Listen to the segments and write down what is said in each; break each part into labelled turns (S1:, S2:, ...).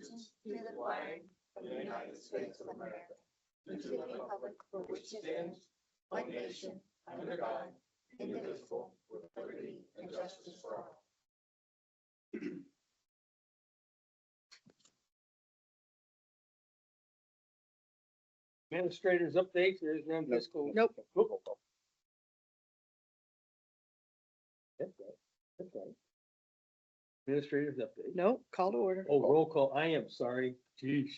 S1: to the flag of the United States of America, and to the republic for which it stands, one nation, under God, indivisible, with liberty and justice for all.
S2: Administrators updates, there's no fiscal.
S3: Nope.
S2: approval. That's right, that's right. Administrators update.
S3: No, call to order.
S2: Oh, roll call, I am sorry, Jeez.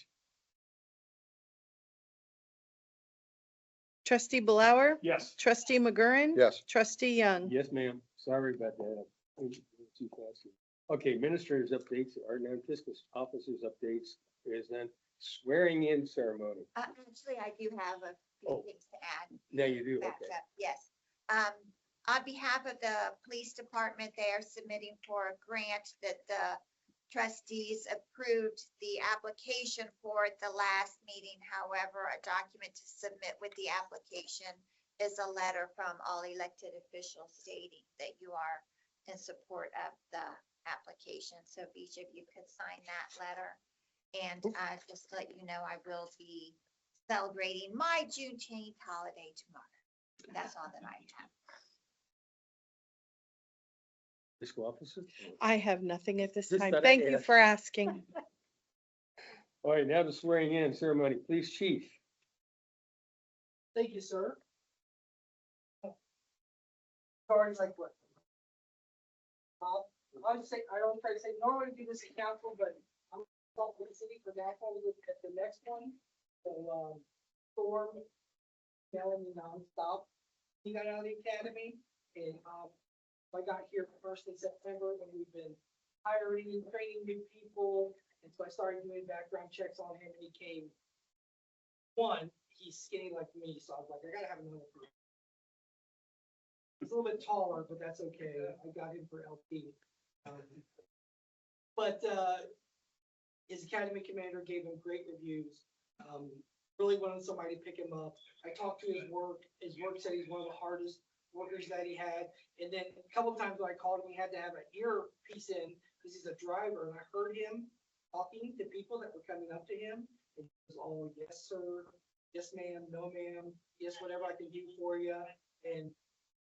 S3: Trustee Blower,
S4: Yes.
S3: trustee McGurran.
S4: Yes.
S3: Trustee Young.
S2: Yes, ma'am, sorry about that. I was too fast here. Okay, administrators updates, our non-fiscal officers updates, there's none. Swearing in ceremony,
S1: Uh, Actually, I do have a
S2: Oh.
S1: few things to add.
S2: now you do,
S1: back
S2: okay.
S1: up, yes. Um, on behalf of the police department, they are submitting for a grant that the trustees approved the application for at the last meeting. However, a document to submit with the application is a letter from all elected officials stating that you are in support of the application. So if each of you could sign that letter. And,
S2: Oh.
S1: uh, just to let you know, I will be celebrating my Juneteenth holiday tomorrow. That's all that I have.
S2: Fiscal officer?
S3: I have nothing at this
S2: Just
S3: time.
S2: thought I'd
S3: Thank you
S2: ask.
S3: for asking.
S2: All right, now the swearing in ceremony, police chief.
S5: Thank you, sir. Sorry, like what? Uh, I was say, I don't try to say, normally do this in council, but I'm not with the city for that one, we look at the next one. So, um, Storm, telling me nonstop. He got out of the academy and, um, I got here first in September when we've been hiring and training new people. And so I started doing background checks on him and he came one, he's skinny like me, so I was like, I gotta have another. group. He's a little bit taller, but that's okay. I got him for LP. Um, But, uh, his academy commander gave him great reviews. Um, really wanted somebody to pick him up. I talked to his work. His work said he's one of the hardest workers that he had. And then a couple times when I called him, he had to have an earpiece in because he's a driver and I heard him talking to people that were coming up to him. It was all yes, sir, yes, ma'am, no, ma'am, yes, whatever I can do for you, and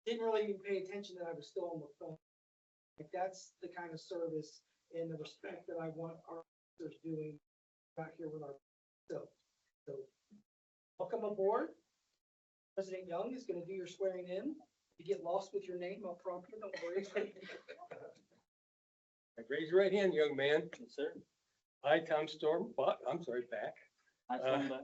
S5: didn't really even pay attention that I was still on the phone. Like, that's the kind of service and the respect that I want our officers doing out here with our, so, so. Welcome aboard. President Young is gonna do your swearing in. If you get lost with your name, I'll prompt you, don't worry.
S2: Raise your right hand, young man. sir. I, Tom Storm, but, I'm sorry, back,
S6: I
S2: Uh,
S6: solemnly,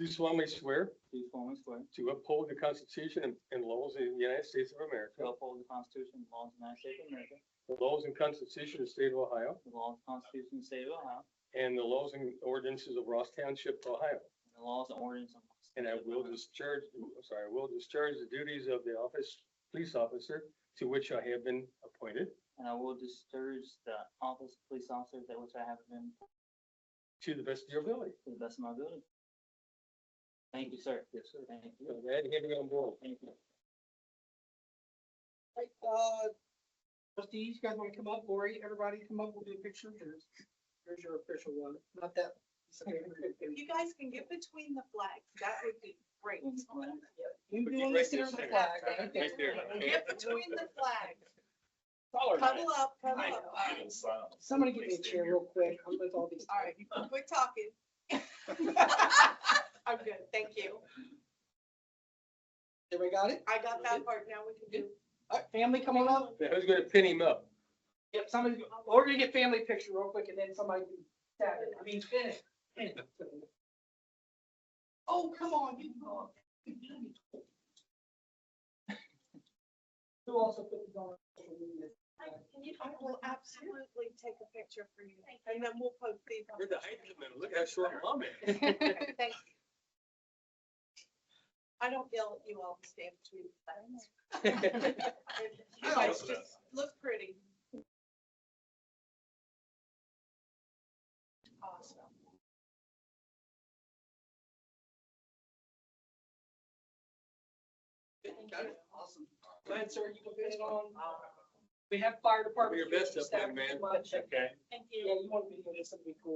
S2: do solemnly swear
S6: do solemnly swear to
S2: to uphold the Constitution and- and laws of the United States of America,
S6: uphold the Constitution and laws of the United States of America,
S2: the laws and Constitution of the State of Ohio,
S6: the laws and Constitution of the State of Ohio,
S2: and the laws and ordinances of Ross Township, Ohio.
S6: and the laws and ordinances of. the
S2: And I
S6: State of
S2: will
S6: Ohio.
S2: discharge, I'm sorry, I will discharge the duties of the office, police officer, to which I have been appointed,
S6: And I will discharge the office of police officer that which I have been
S2: to the best of your ability.
S6: to the best of my ability. Thank you, sir. Yes, sir. Thank you.
S2: I'm glad to have you on board.
S6: Thank you.
S5: Right, uh, trustees, you guys wanna come up, Lori, everybody come up, we'll do a picture, there's, there's your official one, not that.
S7: You guys can get between the flags. That would be great.
S5: You
S2: Put you
S5: doing
S2: right
S5: this here
S2: there,
S5: on the
S2: Sarah.
S5: flag,
S7: Right
S5: right there.
S7: Get between the flags. Cuddle up, cuddle up.
S5: Somebody give me a chair real quick, I'm with all these.
S7: All right, we're talking. I'm good, thank you.
S5: Everybody got it?
S7: I got that part. Now we can do.
S5: Alright, family, come on up.
S2: Now, who's gonna pin him up?
S5: Yep, somebody, we're gonna get family picture real quick and then somebody can stab it, I mean, finish. Oh, come on, you go. Who also put this on? social media?
S7: I will absolutely take a picture for you and then we'll post these. on-
S2: look how short mom is.
S7: Thank you. I don't yell at you all to stand between the flags. You guys just look pretty. Awesome.
S5: Got it? Awesome. Go ahead, sir, you can put it on. We have fire department.
S2: Do your best
S5: here,
S2: up there,
S5: staff,
S2: man.
S5: much.
S2: Okay.
S7: Thank
S5: Yeah, you want to be, this would be cool.